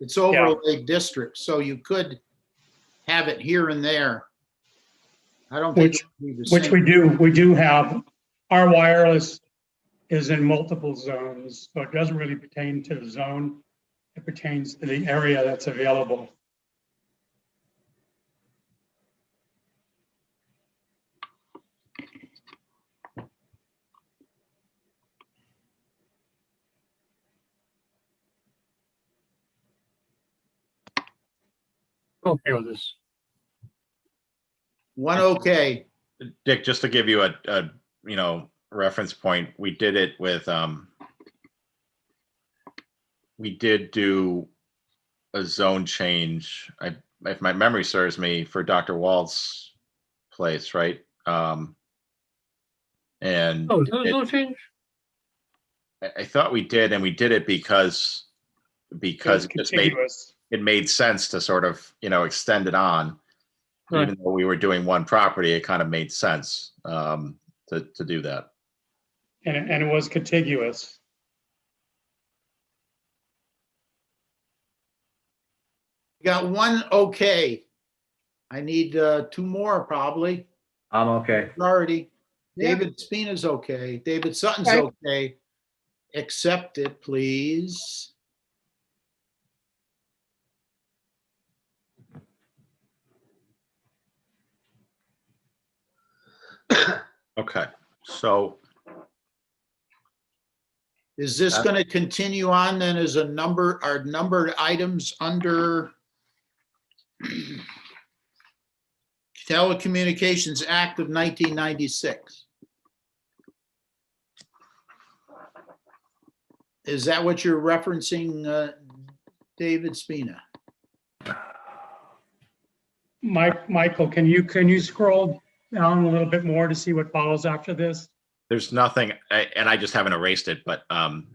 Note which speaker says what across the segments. Speaker 1: It's overlay district, so you could have it here and there. I don't think.
Speaker 2: Which-
Speaker 1: it would be the
Speaker 2: Which
Speaker 1: same.
Speaker 2: we do, we do have. Our wireless is in multiple zones, so it doesn't really pertain to the zone. It pertains to the area that's available.
Speaker 3: Okay with this.
Speaker 1: One, okay,
Speaker 4: Dick, just to give you a, a, you know, reference point, we did it with, um, we did do a zone change. I, if my memory serves me, for Dr. Wald's place, right? Um, and
Speaker 3: Oh, is that a
Speaker 4: it-
Speaker 3: zone change?
Speaker 4: I, I thought we did, and we did it because, because it just made,
Speaker 2: Contiguous.
Speaker 4: it made sense to sort of, you know, extend it on.
Speaker 3: Right.
Speaker 4: Even though we were doing one property, it kind of made sense, um, to, to do that.
Speaker 2: And, it- and it was contiguous.
Speaker 1: We got one, okay. I need uh, two more probably,
Speaker 5: I'm Um, okay.
Speaker 1: already.
Speaker 6: Yeah.
Speaker 1: David Spina's okay, David Sutton's
Speaker 6: Okay.
Speaker 1: okay. Accept it, please.
Speaker 4: Okay, so
Speaker 1: Is this
Speaker 4: Uh,
Speaker 1: going to continue on then as a number, are numbered items under Telecommunications Act of 1996? Is that what you're referencing, uh, David Spina?
Speaker 2: Mike, Michael, can you, can you scroll down a little bit more to see what follows after this?
Speaker 4: there's nothing, I- and I just haven't erased it, but um,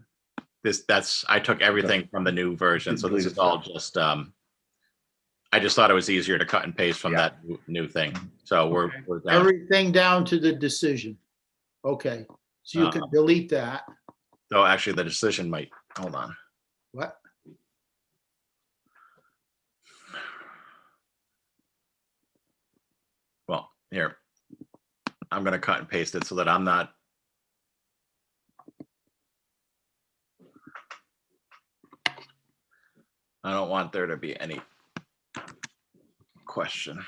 Speaker 4: this, that's, I took everything from the new version, so this is all just, um, I just thought it was easier to cut and paste from
Speaker 5: Yeah.
Speaker 4: that new- new thing, so we're,
Speaker 2: Okay.
Speaker 4: we're down,
Speaker 1: Everything down to the decision. Okay, so you can delete that.
Speaker 4: no, actually, the decision might, hold on.
Speaker 1: What?
Speaker 4: Well, here, I'm gonna cut and paste it so that I'm not. I don't want there to be any question.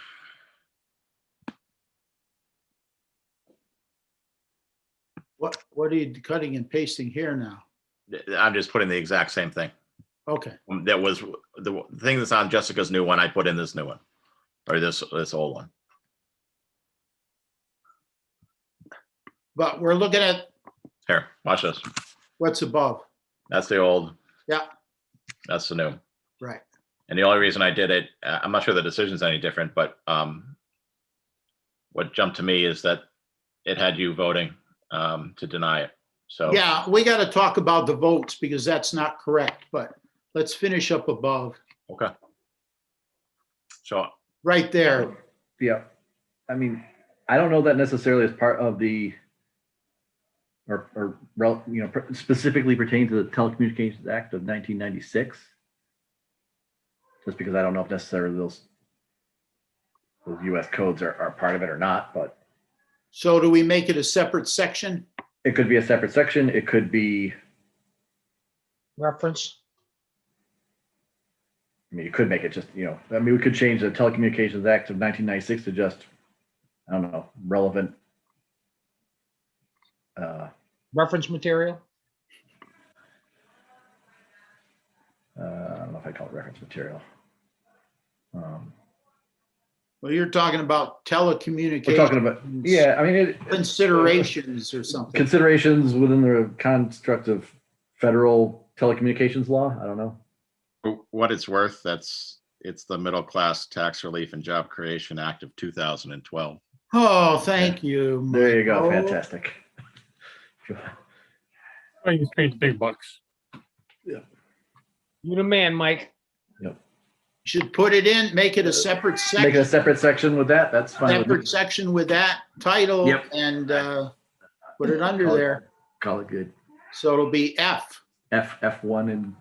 Speaker 1: What, what are you cutting and pasting here now?
Speaker 4: Th- I'm just putting the exact same thing.
Speaker 1: Okay,
Speaker 4: That was the thing that's on Jessica's new one, I put in this new one, or this, this old one.
Speaker 1: but we're looking at
Speaker 4: Here, watch this.
Speaker 1: what's above.
Speaker 4: That's the old.
Speaker 1: Yeah.
Speaker 4: That's the new.
Speaker 1: Right.
Speaker 4: And the only reason I did it, uh, I'm not sure the decision's any different, but um, what jumped to me is that it had you voting um, to deny it. So
Speaker 1: Yeah, we got to talk about the votes because that's not correct, but let's finish up above,
Speaker 4: okay. So
Speaker 1: right there.
Speaker 5: Yeah. I mean, I don't know that necessarily as part of the or, or rel- you know per- specifically pertain to the Telecommunications Act of 1996. Just because I don't know if necessarily those those U.S. codes are, are part of it or not, but
Speaker 1: So do we make it a separate section?
Speaker 5: it could be a separate section. It could be.
Speaker 6: reference.
Speaker 5: I mean, you could make it just you know. I mean, we could change the Telecommunications Act of 1996 to just I don't know relevant. Uh,
Speaker 6: Reference material?
Speaker 5: uh, I don't know if I call it reference material. Um,
Speaker 1: Well, you're talking about
Speaker 5: we're talking
Speaker 1: telecommunications
Speaker 5: about, yeah, I mean, it,
Speaker 1: considerations or something.
Speaker 5: considerations within the construct of federal telecommunications law. I don't know.
Speaker 4: for what it's worth, that's, it's the Middle Class Tax Relief and Job Creation Act of 2012.
Speaker 1: Oh, thank you.
Speaker 5: There you go.
Speaker 1: Michael.
Speaker 5: Fantastic.
Speaker 3: I just Oh, paid the big bucks.
Speaker 6: You the man, Mike.
Speaker 1: Should put it in, make it a separate
Speaker 5: Make
Speaker 1: section,
Speaker 5: a separate section with that. That's fine. with me.
Speaker 1: separate section with that title
Speaker 5: Yep.
Speaker 1: and uh, put it under
Speaker 5: Call it-
Speaker 1: there.
Speaker 5: Call it good.
Speaker 1: So it'll be F.
Speaker 5: F, F1 and